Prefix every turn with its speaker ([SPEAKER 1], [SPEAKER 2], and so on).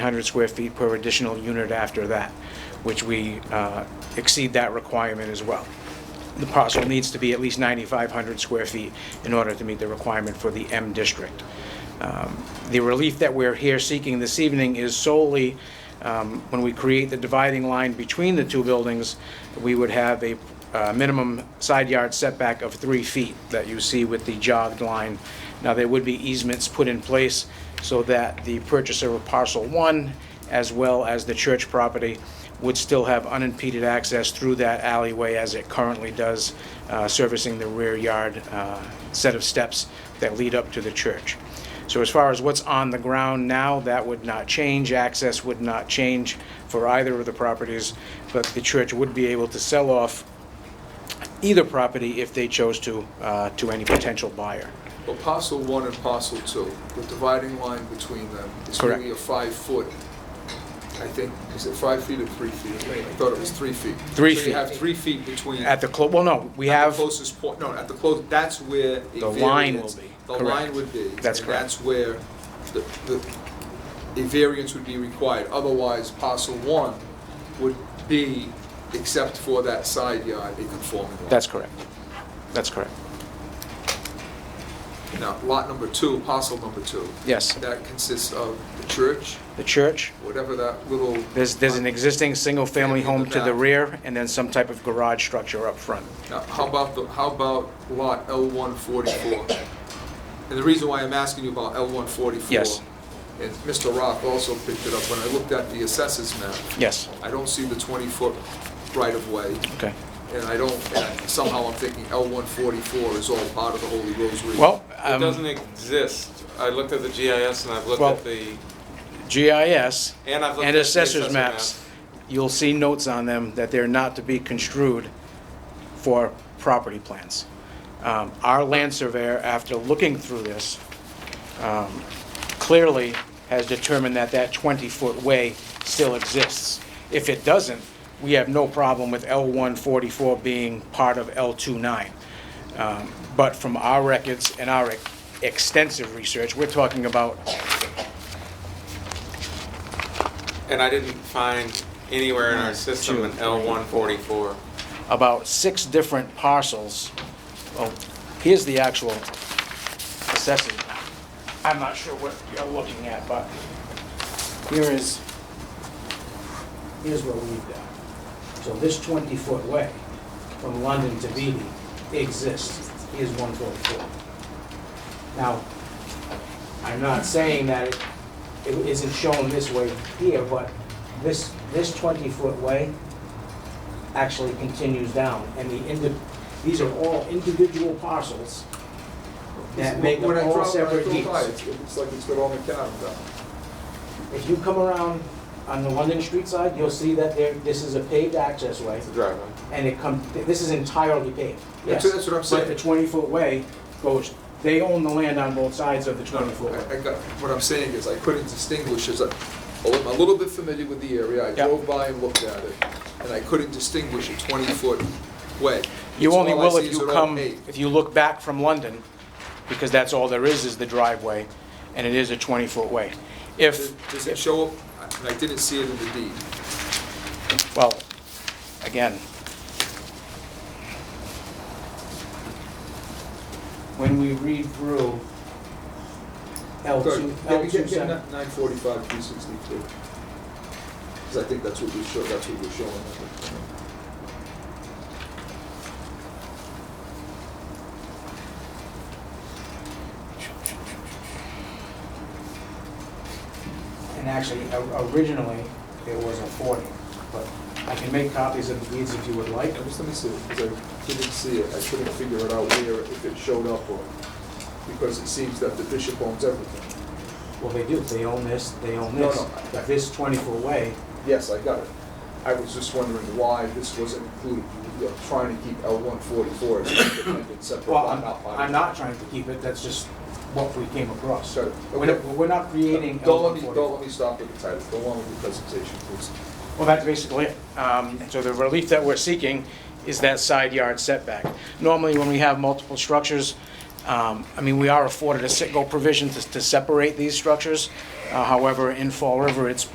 [SPEAKER 1] 100 square feet per additional unit after that, which we uh, exceed that requirement as well. The parcel needs to be at least 9,500 square feet in order to meet the requirement for the M district. Um, The relief that we're here seeking this evening is solely, um, when we create the dividing line between the two buildings, we would have a uh, minimum side yard setback of three feet that you see with the jogged line. Now, there would be easements put in place so that the purchaser of parcel one, as well as the church property, would still have unimpeded access through that alleyway as it currently does, uh, servicing the rear yard uh, set of steps that lead up to the church. So as far as what's on the ground now, that would not change, access would not change for either of the properties, but the church would be able to sell off either property if they chose to, uh, to any potential buyer.
[SPEAKER 2] Well, parcel one and parcel two, the dividing line between them is
[SPEAKER 1] Correct.
[SPEAKER 2] really a five-foot, I think, is it five feet or three feet? I thought it was three feet.
[SPEAKER 1] Three
[SPEAKER 2] So
[SPEAKER 1] feet.
[SPEAKER 2] you have three feet between.
[SPEAKER 1] At the, clo- well, no, we
[SPEAKER 2] at the
[SPEAKER 1] have,
[SPEAKER 2] Closest point, no, at the close, that's where. a
[SPEAKER 1] The line
[SPEAKER 2] variance-
[SPEAKER 1] will be,
[SPEAKER 2] The
[SPEAKER 1] correct.
[SPEAKER 2] line would be.
[SPEAKER 1] That's
[SPEAKER 2] and
[SPEAKER 1] correct.
[SPEAKER 2] that's where the, the, a variance would be required. Otherwise, parcel one would be, except for that side yard, a conforming lot.
[SPEAKER 1] that's correct. That's correct.
[SPEAKER 2] Now, lot number two, parcel number two.
[SPEAKER 1] Yes.
[SPEAKER 2] That consists of the church,
[SPEAKER 1] The church,
[SPEAKER 2] whatever that little.
[SPEAKER 1] there's, there's an existing single-family home to the
[SPEAKER 2] Back.
[SPEAKER 1] rear, and then some type of garage structure up front.
[SPEAKER 2] Now, How about, the how about lot L144? And the reason why I'm asking you about L144.
[SPEAKER 1] Yes.
[SPEAKER 2] And Mr. Roth also picked it up, when I looked at the assessors map,
[SPEAKER 1] Yes,
[SPEAKER 2] I don't see the 20-foot right-of-way,
[SPEAKER 1] okay.
[SPEAKER 2] and I don't, and somehow I'm thinking L144 is all part of the Holy Rosary.
[SPEAKER 1] Well,
[SPEAKER 3] It
[SPEAKER 1] um,
[SPEAKER 3] doesn't exist. I looked at the GIS and I've looked
[SPEAKER 1] Well-
[SPEAKER 3] at the,
[SPEAKER 1] GIS
[SPEAKER 3] and I've looked at
[SPEAKER 1] and
[SPEAKER 3] the
[SPEAKER 1] assessors
[SPEAKER 3] assessor
[SPEAKER 1] maps, you'll see notes on them that they're not to be construed for property plans. Um, Our land surveyor, after looking through this, um, clearly has determined that that 20-foot way still exists. If it doesn't, we have no problem with L144 being part of L29. Um, But from our records and our ex- extensive research, we're talking about
[SPEAKER 3] And I didn't find anywhere in our system an
[SPEAKER 1] Two.
[SPEAKER 3] L144.
[SPEAKER 1] about six different parcels. Oh, here's the actual assessment. I'm not sure what you're looking at, but here is, here's what we've got. So this 20-foot way from London to Beatty exists. Here's 144. Now, I'm not saying that it- it isn't shown this way here, but this, this 20-foot way actually continues down, and the indi, these are all individual parcels that make
[SPEAKER 2] When I
[SPEAKER 1] them all
[SPEAKER 2] drove- when I
[SPEAKER 1] separate
[SPEAKER 2] drove
[SPEAKER 1] deeds.
[SPEAKER 2] by, it's- It looks like it's got all McAdams down.
[SPEAKER 1] If you come around on the London Street side, you'll see that there, this is a paved access way,
[SPEAKER 3] It's a driveway.
[SPEAKER 1] and it come, this is entirely paved.
[SPEAKER 2] That's-
[SPEAKER 1] Yes.
[SPEAKER 2] that's what I'm
[SPEAKER 1] But
[SPEAKER 2] saying.
[SPEAKER 1] the twenty-foot way goes, they own the land on both sides of the twenty-foot
[SPEAKER 2] I-
[SPEAKER 1] way.
[SPEAKER 2] I got, what I'm saying is I couldn't distinguish, as I, I'm a little bit familiar with the area, I
[SPEAKER 1] Yeah.
[SPEAKER 2] drove by and looked at it, and I couldn't distinguish a twenty-foot way.
[SPEAKER 1] You
[SPEAKER 2] So
[SPEAKER 1] only
[SPEAKER 2] all I
[SPEAKER 1] will
[SPEAKER 2] see
[SPEAKER 1] if
[SPEAKER 2] is
[SPEAKER 1] you
[SPEAKER 2] an
[SPEAKER 1] come,
[SPEAKER 2] opaque.
[SPEAKER 1] if you look back from London, because that's all there is, is the driveway, and it is a twenty-foot way. If,
[SPEAKER 2] Does does it show up, and I didn't see it in the deed,
[SPEAKER 1] well, again, when we read through L two, L two seven,
[SPEAKER 2] Nine forty-five, three sixty-two. Because I think that's what we show, that's what we're showing.
[SPEAKER 1] and actually, o- originally, it was a forty, but I can make copies of the deeds if you would like.
[SPEAKER 2] And just let me see, because I didn't see it, I couldn't figure it out where, if it showed up or, because it seems that the bishop owns everything.
[SPEAKER 1] Well, they do, they own this, they own
[SPEAKER 2] No,
[SPEAKER 1] this,
[SPEAKER 2] no.
[SPEAKER 1] but this twenty-foot way,
[SPEAKER 2] Yes, I got it. I was just wondering why this wasn't included. You were Trying to keep L one forty-four as an independent separate
[SPEAKER 1] well,
[SPEAKER 2] lot,
[SPEAKER 1] I'm,
[SPEAKER 2] not by.
[SPEAKER 1] I'm not trying to keep it, that's just what we came across.
[SPEAKER 2] So,
[SPEAKER 1] We're not,
[SPEAKER 2] okay.
[SPEAKER 1] we're not creating L
[SPEAKER 2] Don't let me, don't let me stop with the title. Go on with the presentation, please.
[SPEAKER 1] Well, that's basically it. Um, So the relief that we're seeking is that side yard setback. Normally, when we have multiple structures, um, I mean, we are afforded a sit-go provision to to separate these structures. Uh, However, in Fall River, it's